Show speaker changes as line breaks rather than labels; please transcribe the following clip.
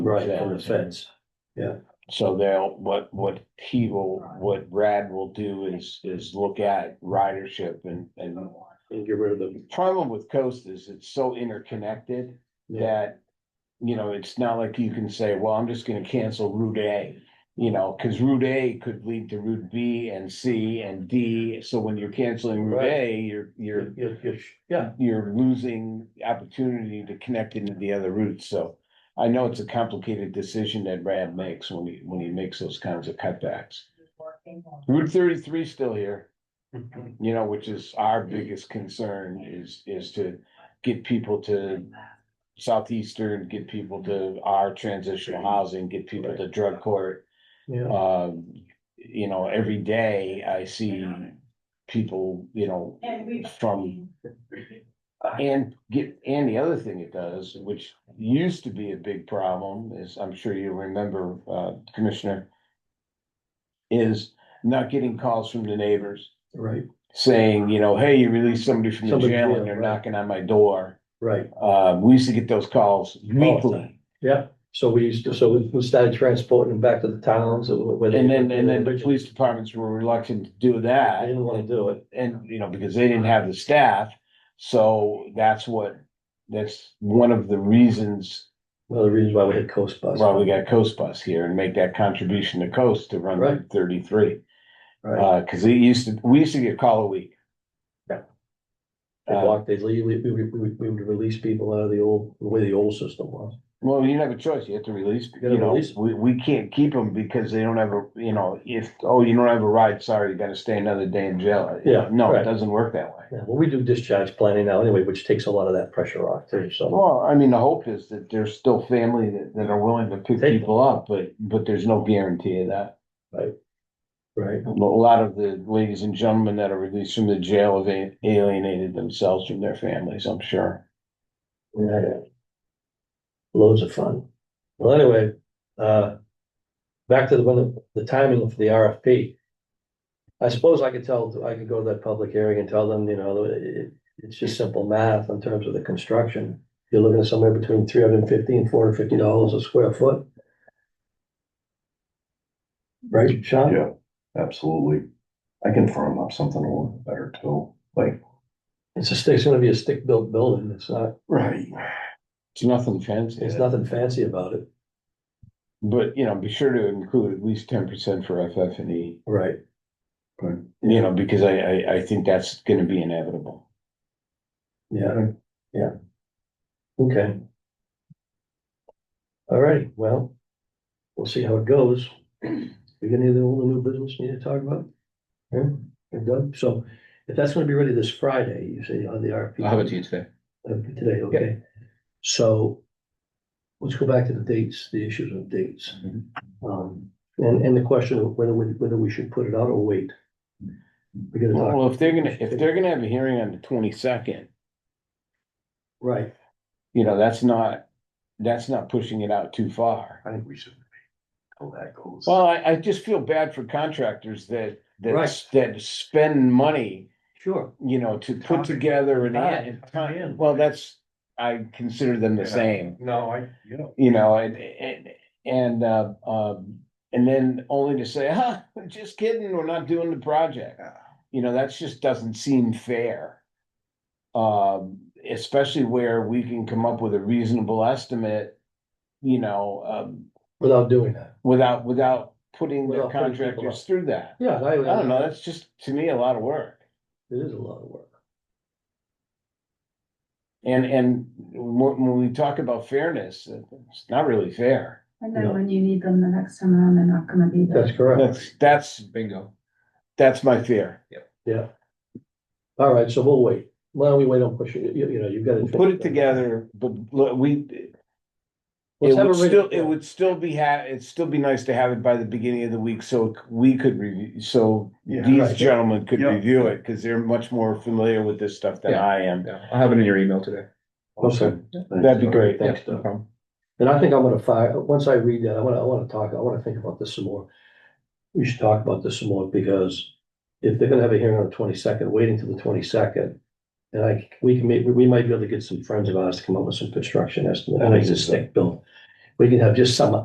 Right, from the fence.
So they'll, what, what he will, what Brad will do is, is look at ridership and, and
And get rid of them.
problem with coast is it's so interconnected that, you know, it's not like you can say, well, I'm just gonna cancel Route A. You know, cause Route A could lead to Route B and C and D, so when you're canceling Route A, you're, you're,
You're, you're, you're- yeah,
you're losing opportunity to connect into the other routes, so. I know it's a complicated decision that Brad makes when he, when he makes those kinds of cutbacks. Route thirty-three still here you know, which is our biggest concern is, is to get people to Southeastern, get people to our transitional housing, get people to drug court.
yeah,
Um, you know, every day I see people, you know, from and get, and the other thing it does, which used to be a big problem, is I'm sure you remember, uh, Commissioner, is not getting calls from the neighbors
right,
saying, you know, hey, you released somebody from the
Somebody,
jail
yeah,
and they're
right.
knocking on my door.
right,
Um, we used to get those calls weekly.
yeah. So we used to, so we we started transporting them back to the towns.
And then, and then the police departments were reluctant to do
I
that
didn't wanna do it.
and, you know, because they didn't have the staff. So that's what, that's one of the reasons
One of the reasons why we had Coast Bus.
why we got Coast Bus here and make that contribution to Coast to run
Right.
Route thirty-three.
Right,
Uh, cause it used to, we used to get a call a week.
Yeah. they
Uh,
walked, they legally, we, we, we we would release people out of the old, the way the old system was.
Well, you have a choice. You have to release,
gotta
you know,
release 'em.
we, we can't keep them because they don't have a, you know, if, oh, you don't have a ride, sorry, you gotta stay another day in jail. Uh,
Yeah,
No,
right.
it doesn't work that way.
Yeah, well, we do discharge planning now anyway, which takes a lot of that pressure off too, so.
Well, I mean, the hope is that there's still family that, that are willing to pick
Take 'em.
people up, but, but there's no guarantee of that.
Right,
A lot of the ladies and gentlemen that are released from the jail have a- alienated themselves from their families, I'm sure.
yeah. Loads of fun. Well, anyway, uh, back to the one, the timing of the RFP. I suppose I could tell, I could go to that public hearing and tell them, you know, it, it- it's just simple math in terms of the construction. You're looking at somewhere between three hundred and fifty and four hundred and fifty dollars a square foot. Right, Sean?
Yeah, absolutely. I can firm up something a little better too, like.
It's a, stick- it's gonna be a stick-built building. It's not,
Right.
It's nothing fancy,
There's
Yeah.
nothing fancy about it.
but, you know, be sure to include at least ten percent for FF and E.
Right.
You know, because I, I, I think that's gonna be inevitable.
Yeah, yeah. Okay. All right, well, we'll see how it goes. We got any of the old and new business we need to talk about? Yeah, we're done. So if that's gonna be ready this Friday, you say on the RFP.
I'll have it to you today.
Uh, Today, okay. So let's go back to the dates, the issues of dates. Um, and, and the question of whether, we- whether we should put it out or wait. We gotta talk,
Well, if they're gonna, if they're gonna have a hearing on the twenty-second,
right,
you know, that's not, that's not pushing it out too far.
I think we should. How that goes.
Well, I, I just feel bad for contractors that, that,
Right.
that spend money,
sure.
you know, to put together an, an-
Time.
well, that's, I consider them the
Yeah.
same.
No, I, you know.
you know, and, and, and, uh, um, and then only to say, huh, just kidding, we're not doing the project.
Yeah.
You know, that's just doesn't seem fair. Um, especially where we can come up with a reasonable estimate, you know, um,
Without doing that.
without, without putting the
Without putting people up.
contractors through that.
Yeah, I,
I don't know, that's just, to me, a lot of work.
It is a lot of work.
And, and when, when we talk about fairness, it's not really fair.
And
Yeah.
then when you need them the next time around, they're not gonna be there.
That's correct.
That's, that's,
Bingo.
that's my fear.
All right, so we'll wait. Why don't we wait on pushing it? You, you know, you've got to.
put it together, but look, we.
Let's
It
have
would
a written-
still, it would still be ha, it'd still be nice to have it by the beginning of the week, so we could review, so
Yeah.
these
Right.
gentlemen could
Yeah.
review it, cause they're much more familiar with this stuff than
Yeah.
I am.
Yeah, I'll have it in your email today.
Okay,
That'd be great.
thanks,
No
Doug.
problem.
And I think I'm gonna fire, once I read that, I wanna, I wanna talk, I wanna think about this some more. We should talk about this some more because if they're gonna have a hearing on the twenty-second, waiting till the twenty-second. And I, we can make, we might be able to get some friends of ours to come up with some construction estimate, I know it's a stick built. we can have just some